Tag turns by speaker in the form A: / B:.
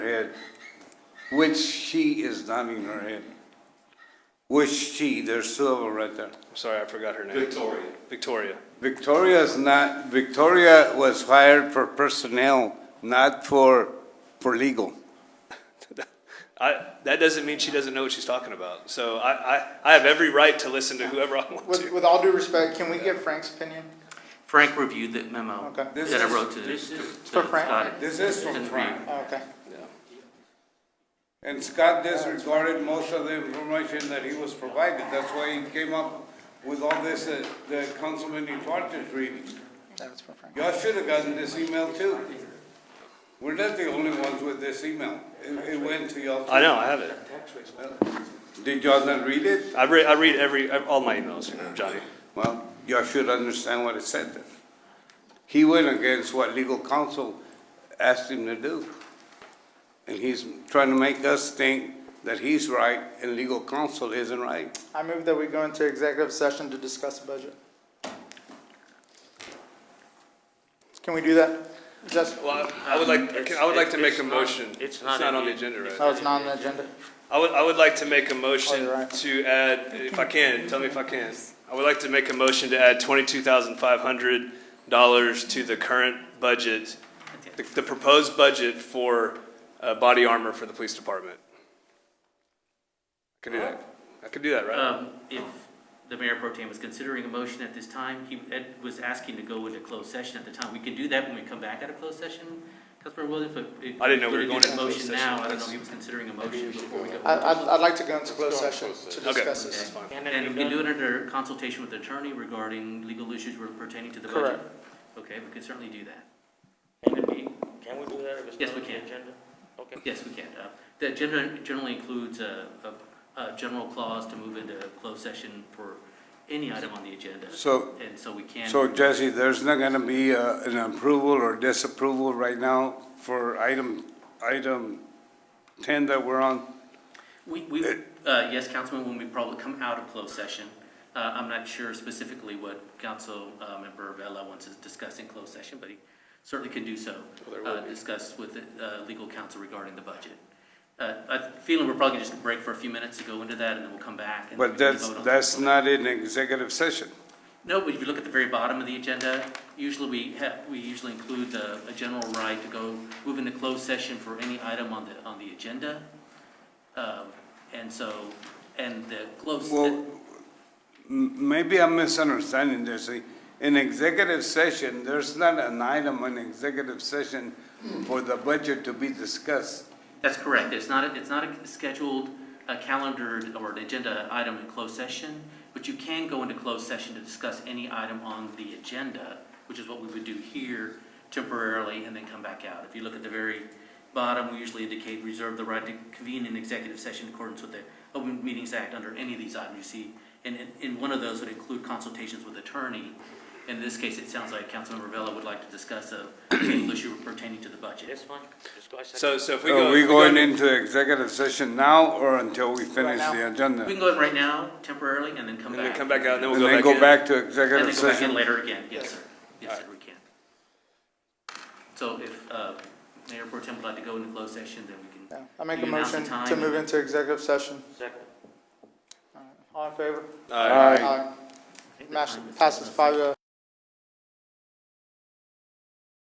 A: head, which she is nodding her head. Which she, there's two of them right there.
B: I'm sorry, I forgot her name.
C: Victoria.
B: Victoria.
A: Victoria's not, Victoria was hired for personnel, not for, for legal.
B: I, that doesn't mean she doesn't know what she's talking about. So I, I, I have every right to listen to whoever I want
D: With,
B: to.
D: with all due respect, can we get Frank's opinion?
E: Frank reviewed the memo
D: Okay.
E: that
A: This
E: I
A: is-
E: wrote to the, to
A: this is-
D: For
E: to
D: Frank?
E: Scott.
A: This is from Frank.
D: Oh, Okay.
A: And Scott disregarded most of the information that he was provided. That's why he came up with all this, uh, the Councilman Duarte's reading.
D: That was for Frank.
A: Y'all should have gotten this email too. We're not the only ones with this email. It, it went to y'all. too.
B: I know, I have it.
A: Did y'all not read it?
B: I read, I read every, all my emails, Johnny.
A: Well, y'all should understand what it said then. He went against what legal counsel asked him to do. And he's trying to make us think that he's right and legal counsel isn't right.
D: I move that we go into executive session to discuss the budget. Can we do that? Just,
B: Well, I I would like, I would like to make a
E: It's not-
B: motion.
E: it's
B: It's
E: not
B: not
E: in
B: on the
E: the-
B: agenda right
D: oh, it's not on the agenda.
B: I would, I would like to make a
D: Oh,
B: motion
D: you're right.
B: to add, if I can, tell me if I can. I would like to make a motion to add twenty-two thousand five hundred dollars to the current budget, the, the proposed budget for, uh, body armor for the police department. I Can do that. I could do that, right?
E: Um, if the mayor pro tem was considering a motion at this time, he, Ed was asking to go into closed session at the time. We can do that when we come back out of closed session, Councilor Williams, but. if-
B: I didn't know we were
E: if
B: going
E: did
B: into
E: a
B: closed
E: motion
B: session.
E: Now, I don't know if he was considering a motion before we go.
D: I, I'd, I'd like to go into closed session to
B: Okay, that's
D: discuss this.
B: fine.
E: And we can do it under consultation with the attorney regarding legal issues pertaining to the budget.
D: Correct.
E: Okay, we can certainly do that.
F: Can we do that if it's
E: Yes,
F: not
E: we
F: on the
E: can.
F: agenda? Okay.
E: Yes, we can. Uh, The agenda generally includes a, a, a general clause to move into closed session for any item on the agenda.
A: So-
E: And so we can.
A: So Jesse, there's not gonna be uh, an approval or disapproval right now for item, item ten that we're on?
E: We, we, uh, yes, Councilman, when we probably come out of closed session, uh, I'm not sure specifically what Council, uh, Member Vella wants to discuss in closed session, but he certainly can do so. Uh, discuss with, uh, legal counsel regarding the budget. Uh, I'm feeling we're probably gonna just break for a few minutes to go into that and then we'll come back. and we
A: But
E: can
A: that's,
E: vote on that.
A: that's not in executive session.
E: No, but if you look at the very bottom of the agenda, usually we have, we usually include the, a general right to go, move into closed session for any item on the, on the agenda. Um, and so, and the closed,
A: Well, m- maybe I'm misunderstanding, Jesse. In executive session, there's not an item in executive session for the budget to be discussed.
E: that's correct, it's not, a- it's not a scheduled, a calendared or an agenda item in closed session, but you can go into closed session to discuss any item on the agenda, which is what we would do here temporarily and then come back out. If you look at the very bottom, we usually indicate reserve the right to convene an executive session in accordance with the Open Meetings Act under any of these items you see. And, and, and one of those would include consultations with attorney. In this case, it sounds like Councilmember Vella would like to discuss a legal issue pertaining to the budget.
F: That's fine. Just go ahead.
B: So, so if we go.
A: Are
B: if
A: we
B: go
A: going
B: into-
A: into executive session now or until we finish
D: now.
A: the
E: We
A: agenda?
E: can go in right now temporarily and then come
B: And
E: back.
B: then come back out, and then we'll
A: And
B: go back
A: then go back
B: in.
A: to
E: And
A: executive
E: then go back in
A: session?
E: later again, yes, sir. Yes, sir, we can. So if uh, Mayor Pro Tem would like to go into closed session, then we
D: Yeah.
E: can.
D: I make a
E: You announce the
D: motion to
E: time
D: move
E: and-
D: into executive session.
F: Second.
D: All in favor?
B: All right.
D: Aye.
E: I think the
D: Mash-
E: time is-
D: Passes five, uh,